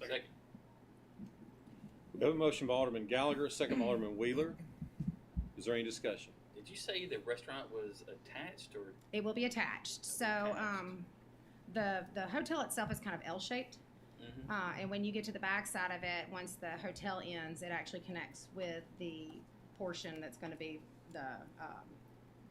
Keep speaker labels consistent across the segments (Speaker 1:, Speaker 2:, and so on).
Speaker 1: Second.
Speaker 2: We have a motion by Alderman Gallagher, second by Alderman Wheeler. Is there any discussion?
Speaker 1: Did you say the restaurant was attached or?
Speaker 3: It will be attached. So um, the the hotel itself is kind of L shaped,
Speaker 1: Mhm.
Speaker 3: uh, and when you get to the back side of it, once the hotel ends, it actually connects with the portion that's going to be the um,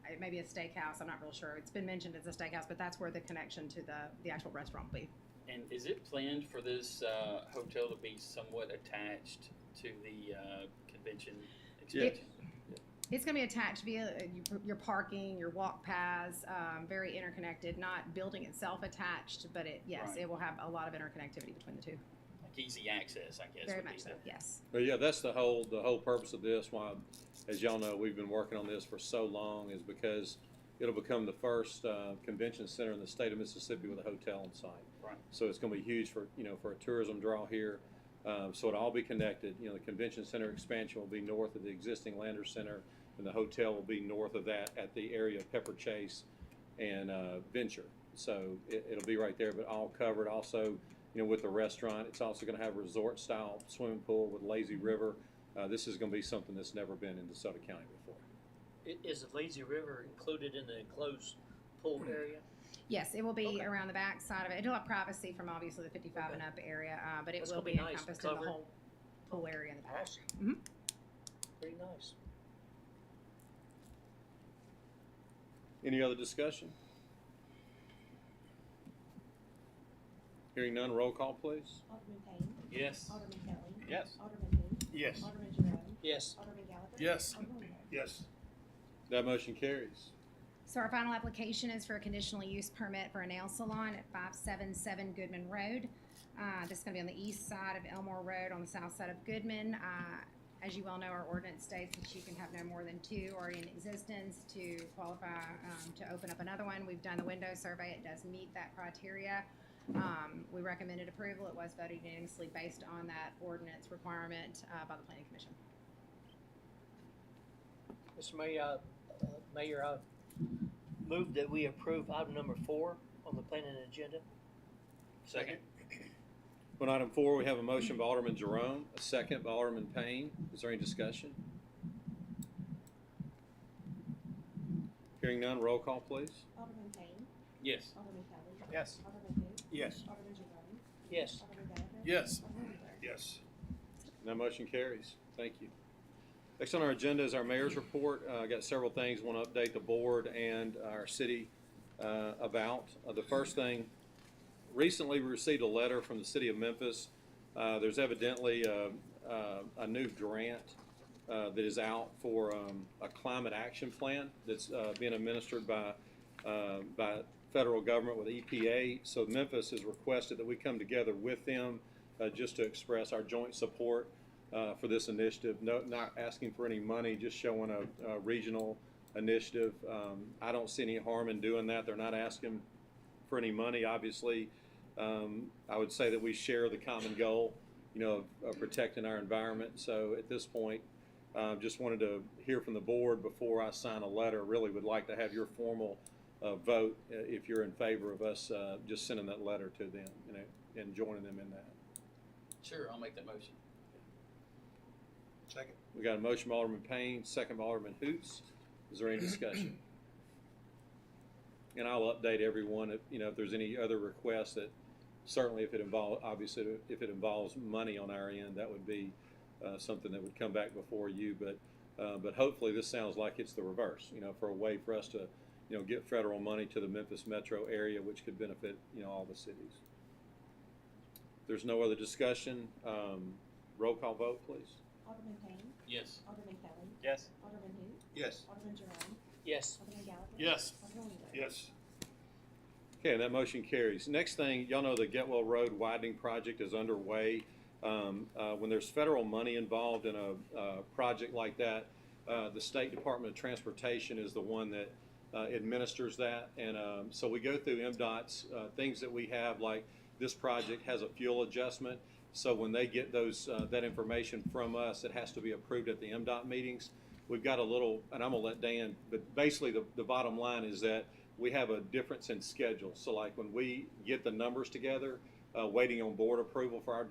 Speaker 3: it may be a steakhouse. I'm not real sure. It's been mentioned as a steakhouse, but that's where the connection to the the actual restaurant will be.
Speaker 1: And is it planned for this uh, hotel to be somewhat attached to the uh, convention expansion?
Speaker 3: It's going to be attached via uh, your- your parking, your walk paths, um, very interconnected. Not building itself attached, but it yes,
Speaker 1: Right.
Speaker 3: it will have a lot of interconnectivity between the two.
Speaker 1: Like easy access, I guess.
Speaker 3: very
Speaker 1: would be
Speaker 3: much so.
Speaker 1: the-
Speaker 3: Yes.
Speaker 2: But yeah, that's the whole, the whole purpose of this, why, as y'all know, we've been working on this for so long, is because it'll become the first, uh, convention center in the state of Mississippi with a hotel on site.
Speaker 1: Right.
Speaker 2: So it's gonna be huge for, you know, for a tourism draw here. Um, so it'll all be connected, you know, the convention center expansion will be north of the existing Lander Center, and the hotel will be north of that at the area of Pepper Chase and, uh, Venture. So it, it'll be right there, but all covered. Also, you know, with the restaurant. It's also going to have a resort-style swimming pool with lazy river. Uh, this is going to be something that's never been in DeSoto County before.
Speaker 4: I- Is the lazy river included in the enclosed pool area?
Speaker 3: Yes, it will be
Speaker 4: Okay.
Speaker 3: around the back side of it. It'll have privacy from obviously the 55 and up area, uh, but it
Speaker 4: That's
Speaker 3: will
Speaker 4: gonna
Speaker 3: be,
Speaker 4: be nice,
Speaker 3: encompassed in
Speaker 4: covered.
Speaker 3: the whole pool area in the back.
Speaker 4: Awesome.
Speaker 3: Mhm.
Speaker 4: Pretty nice.
Speaker 2: Any other discussion? Hearing none, roll call, please.
Speaker 5: Alderman Payne.
Speaker 1: Yes.
Speaker 5: Alderman Kelly.
Speaker 2: Yes.
Speaker 5: Alderman who?
Speaker 6: Yes.
Speaker 5: Alderman Jerome.
Speaker 4: Yes,
Speaker 5: Alderman Gallagher.
Speaker 6: Yes.
Speaker 5: Alderman Wheeler.
Speaker 6: Yes.
Speaker 2: That motion carries.
Speaker 3: So our final application is for a conditional use permit for a nail salon at 577 Goodman Road. Uh, This is going to be on the east side of Elmore Road, on the south side of Goodman. Uh, As you well know, our ordinance states that you can have no more than two already in existence to qualify um, to open up another one. We've done the window survey. It does meet that criteria. Um, We recommended approval. It was voted unanimously based on that ordinance requirement uh, by the planning commission.
Speaker 4: Mr. Mayor, uh, uh, Mayor, I move that we approve item number four on the planning agenda.
Speaker 1: Second.
Speaker 2: On item four, we have a motion by Alderman Jerome, a second by Alderman Payne. Is there any discussion? Hearing none, roll call, please.
Speaker 5: Alderman Payne.
Speaker 1: Yes.
Speaker 5: Alderman Kelly.
Speaker 6: Yes.
Speaker 5: Alderman who?
Speaker 6: Yes.
Speaker 5: Alderman Jerome.
Speaker 4: Yes,
Speaker 5: Alderman Gallagher.
Speaker 6: Yes.
Speaker 5: Alderman Wheeler.
Speaker 6: Yes.
Speaker 2: And that motion carries. Thank you. Next on our agenda is our mayor's report. Uh, I got several things, want to update the board and our city uh, about. Uh, The first thing, recently we received a letter from the city of Memphis. Uh, There's evidently uh, uh, a new grant uh, that is out for um, a climate action plan that's uh, being administered by, uh, by federal government with EPA. So Memphis has requested that we come together with them uh, just to express our joint support uh, for this initiative. No, not asking for any money, just showing a, a regional initiative. Um, I don't see any harm in doing that. They're not asking for any money, obviously. Um, I would say that we share the common goal, you know, of, of protecting our environment. So at this point, uh, just wanted to hear from the board before I sign a letter. Really would like to have your formal uh, vote uh, if you're in favor of us uh, just sending that letter to them, you know, and joining them in that.
Speaker 1: Sure, I'll make that motion.
Speaker 6: Second.
Speaker 2: We got a motion by Alderman Payne, second by Alderman Hoots. Is there any discussion? And I'll update everyone if, you know, if there's any other requests that, certainly if it involve, obviously, if it involves money on our end, that would be, uh, something that would come back before you, but, uh, but hopefully this sounds like it's the reverse, you know, for a way for us to, you know, get federal money to the Memphis metro area, which could benefit, you know, all the cities. If There's no other discussion, um, roll call vote, please.
Speaker 5: Alderman Payne.
Speaker 1: Yes.
Speaker 5: Alderman Kelly.
Speaker 1: Yes.
Speaker 5: Alderman who?
Speaker 6: Yes.
Speaker 5: Alderman Jerome.
Speaker 4: yes,
Speaker 5: Alderman Gallagher.
Speaker 6: Yes.
Speaker 5: Alderman Wheeler.
Speaker 6: Yes.
Speaker 2: Okay, and that motion carries. Next thing, y'all know the Getwell Road widening project is underway. Um, uh, when there's federal money involved in a, uh project like that, uh, the State Department of Transportation is the one that, uh, administers that. And, um, so we go through MDOT's, uh, things that we have, like this project has a fuel adjustment. So when they get those, uh, that information from us, it has to be approved at the MDOT meetings. We've got a little, and I'm gonna let Dan, but basically the, the bottom line is that we have a difference in schedule. So like when we get the numbers together, uh, waiting on board approval for our